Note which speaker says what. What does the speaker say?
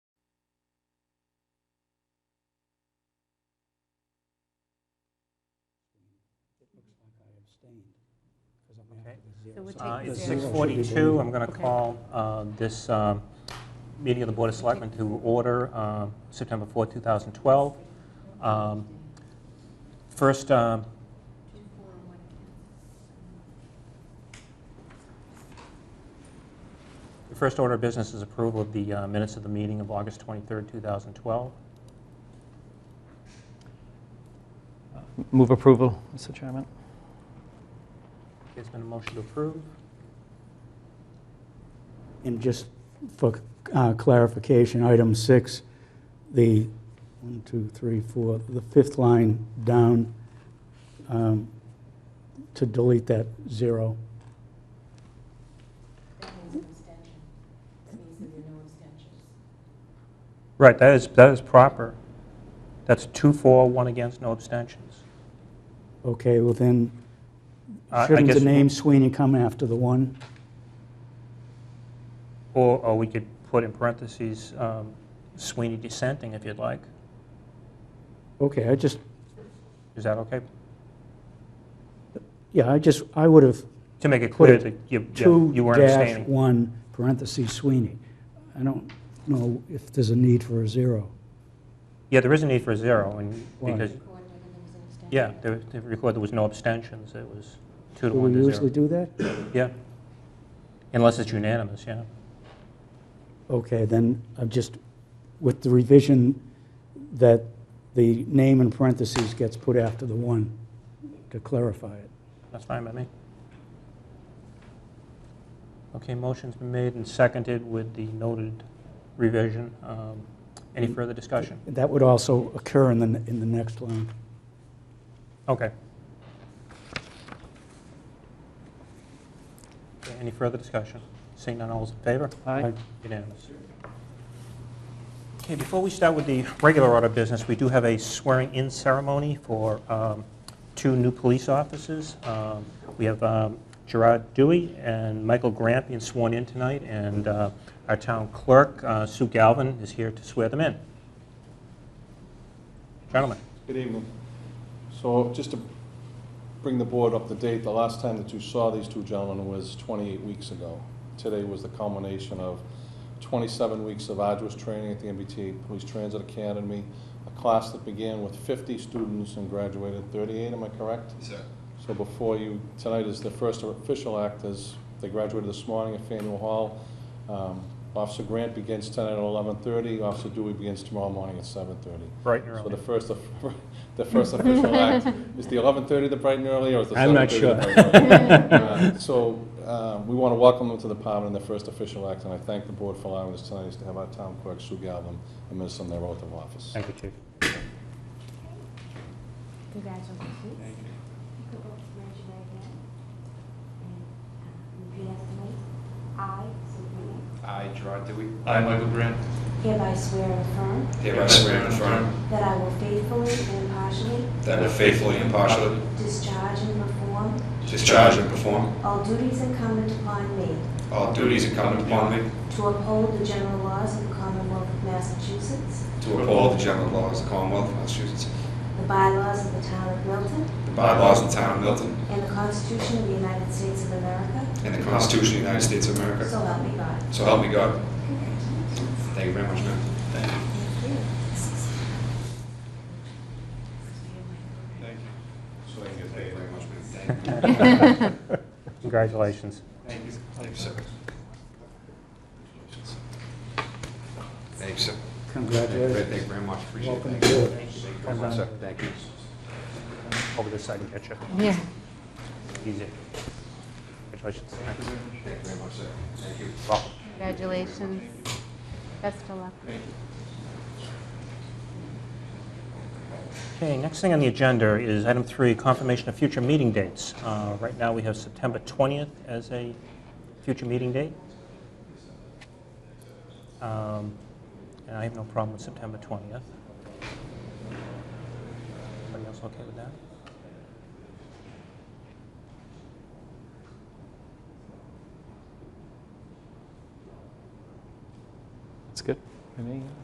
Speaker 1: abstained, because I'm after
Speaker 2: Okay.
Speaker 1: the zero.
Speaker 3: So we'll
Speaker 1: So
Speaker 2: Uh,
Speaker 3: take the
Speaker 2: It's
Speaker 1: zero.
Speaker 3: zero.
Speaker 2: 6:42. I'm going to
Speaker 3: Okay.
Speaker 2: call uh, this um, meeting of the Board of Selectmen to order um, September 4, 2012. Um, First, um, the first order of business is approval of the uh, minutes of the meeting of August 23, 2012.
Speaker 4: Move approval, Mr. Chairman.
Speaker 2: There's been a motion to approve.
Speaker 1: And just for uh, clarification, item six, the one, two, three, four, the fifth line down, um, to delete that zero.
Speaker 5: That means an abstention. That means that there are no abstentions.
Speaker 2: Right, that is, that is proper. That's two for, one against, no abstentions.
Speaker 1: Okay, well then,
Speaker 2: Uh, I- I
Speaker 1: shouldn't the
Speaker 2: guess-
Speaker 1: name Sweeney come after the one?
Speaker 2: Or, or we could put in parentheses um, Sweeney dissenting if you'd like.
Speaker 1: Okay, I just,
Speaker 2: Is that okay?
Speaker 1: yeah, I just, I would have
Speaker 2: To make it
Speaker 1: Put
Speaker 2: clear
Speaker 1: it
Speaker 2: that you, yeah,
Speaker 1: two
Speaker 2: you weren't
Speaker 1: dash
Speaker 2: abstaining.
Speaker 1: one parentheses Sweeney. I don't know if there's a need for a zero.
Speaker 2: Yeah, there is a need for a zero, and
Speaker 1: Why?
Speaker 2: because,
Speaker 5: Record whether there was an abstention.
Speaker 2: yeah, the the record, there was no abstentions, it was two to
Speaker 1: Do
Speaker 2: one
Speaker 1: we
Speaker 2: to
Speaker 1: usually
Speaker 2: zero.
Speaker 1: do that?
Speaker 2: Yeah. Unless it's unanimous, yeah.
Speaker 1: Okay, then I'm just, with the revision that the name in parentheses gets put after the one to clarify it.
Speaker 2: That's fine by me. Okay, motion's been made and seconded with the noted revision. Um, Any
Speaker 1: Mm.
Speaker 2: further discussion?
Speaker 1: That would also occur in the, in the next line.
Speaker 2: Okay. Okay, Any further discussion? Seeing none, all is in favor?
Speaker 4: Aye.
Speaker 2: Unanimous. Okay, before we start with the regular order of business, we do have a swearing-in ceremony for um, two new police officers. Um, We have um, Gerard Dewey and Michael Grant being sworn in tonight, and uh, our town clerk, uh, Sue Galvin, is here to swear them in. Gentlemen.
Speaker 6: Good evening. So just to bring the board up to date, the last time that you saw these two gentlemen was 28 weeks ago. Today was the culmination of 27 weeks of arduous training at the MBTA Police Transit Academy, a class that began with 50 students and graduated 38, am I correct?
Speaker 7: Sir.
Speaker 6: So before you, tonight is the first official act as they graduated this morning at Faneuil Hall. Um, Officer Grant begins tonight at 11:30, Officer Dewey begins tomorrow morning at 7:30.
Speaker 2: Bright and
Speaker 6: So
Speaker 2: early.
Speaker 6: the first, of- the first official act, is the 11:30 the bright and early, or is the 7:30?
Speaker 2: I'm not
Speaker 6: the bright and early? Uh, So uh, we want to welcome them to the Palmer in the first official act, and I thank the board for allowing us tonight to have our town clerk, Sue Galvin, administer their oath of office.
Speaker 2: Thank you, Chief.
Speaker 5: Congratulations. Thank you. You can both raise your right hand and uh, repeat after me. I, state your name,
Speaker 7: I, Gerard Dewey. I, Michael Grant.
Speaker 5: hereby swear and affirm
Speaker 7: Hereby swear and affirm
Speaker 5: that I will faithfully and impartially
Speaker 7: that I will faithfully and impartially
Speaker 5: discharge and perform
Speaker 7: discharge and perform
Speaker 5: all duties incumbent upon me
Speaker 7: all duties incumbent upon me
Speaker 5: to uphold the general laws of the Commonwealth of Massachusetts,
Speaker 7: to uphold the general laws of the Commonwealth of Massachusetts,
Speaker 5: the bylaws of the town of Milton,
Speaker 7: the bylaws of the town of Milton,
Speaker 5: and the Constitution of the United States of America,
Speaker 7: and the Constitution of the United States of America.
Speaker 5: so help me God.
Speaker 7: So help me God. Thank you very much, ma'am. Thank you. Thank you. Thank you very much, ma'am. Thank you.
Speaker 2: Congratulations.
Speaker 7: Thank you. Thank you, sir. Thank you, sir.
Speaker 1: Congratulations.
Speaker 7: Thank you very much, appreciate it.
Speaker 1: Welcome
Speaker 7: Thank you.
Speaker 1: aboard.
Speaker 7: Thank you very much, sir. Thank you.
Speaker 2: Over this side and get you.
Speaker 3: Yeah.
Speaker 2: Easy. Congratulations. Thanks.
Speaker 7: Thank you very much, sir. Thank you.
Speaker 2: Welcome.
Speaker 3: Congratulations. Best of luck.
Speaker 2: Okay, next thing on the agenda is item three, confirmation of future meeting dates. Uh, Right now, we have September 20th as a future meeting date. Um, And I have no problem with September 20th. Everybody else okay with that?
Speaker 4: That's good. For me, yeah.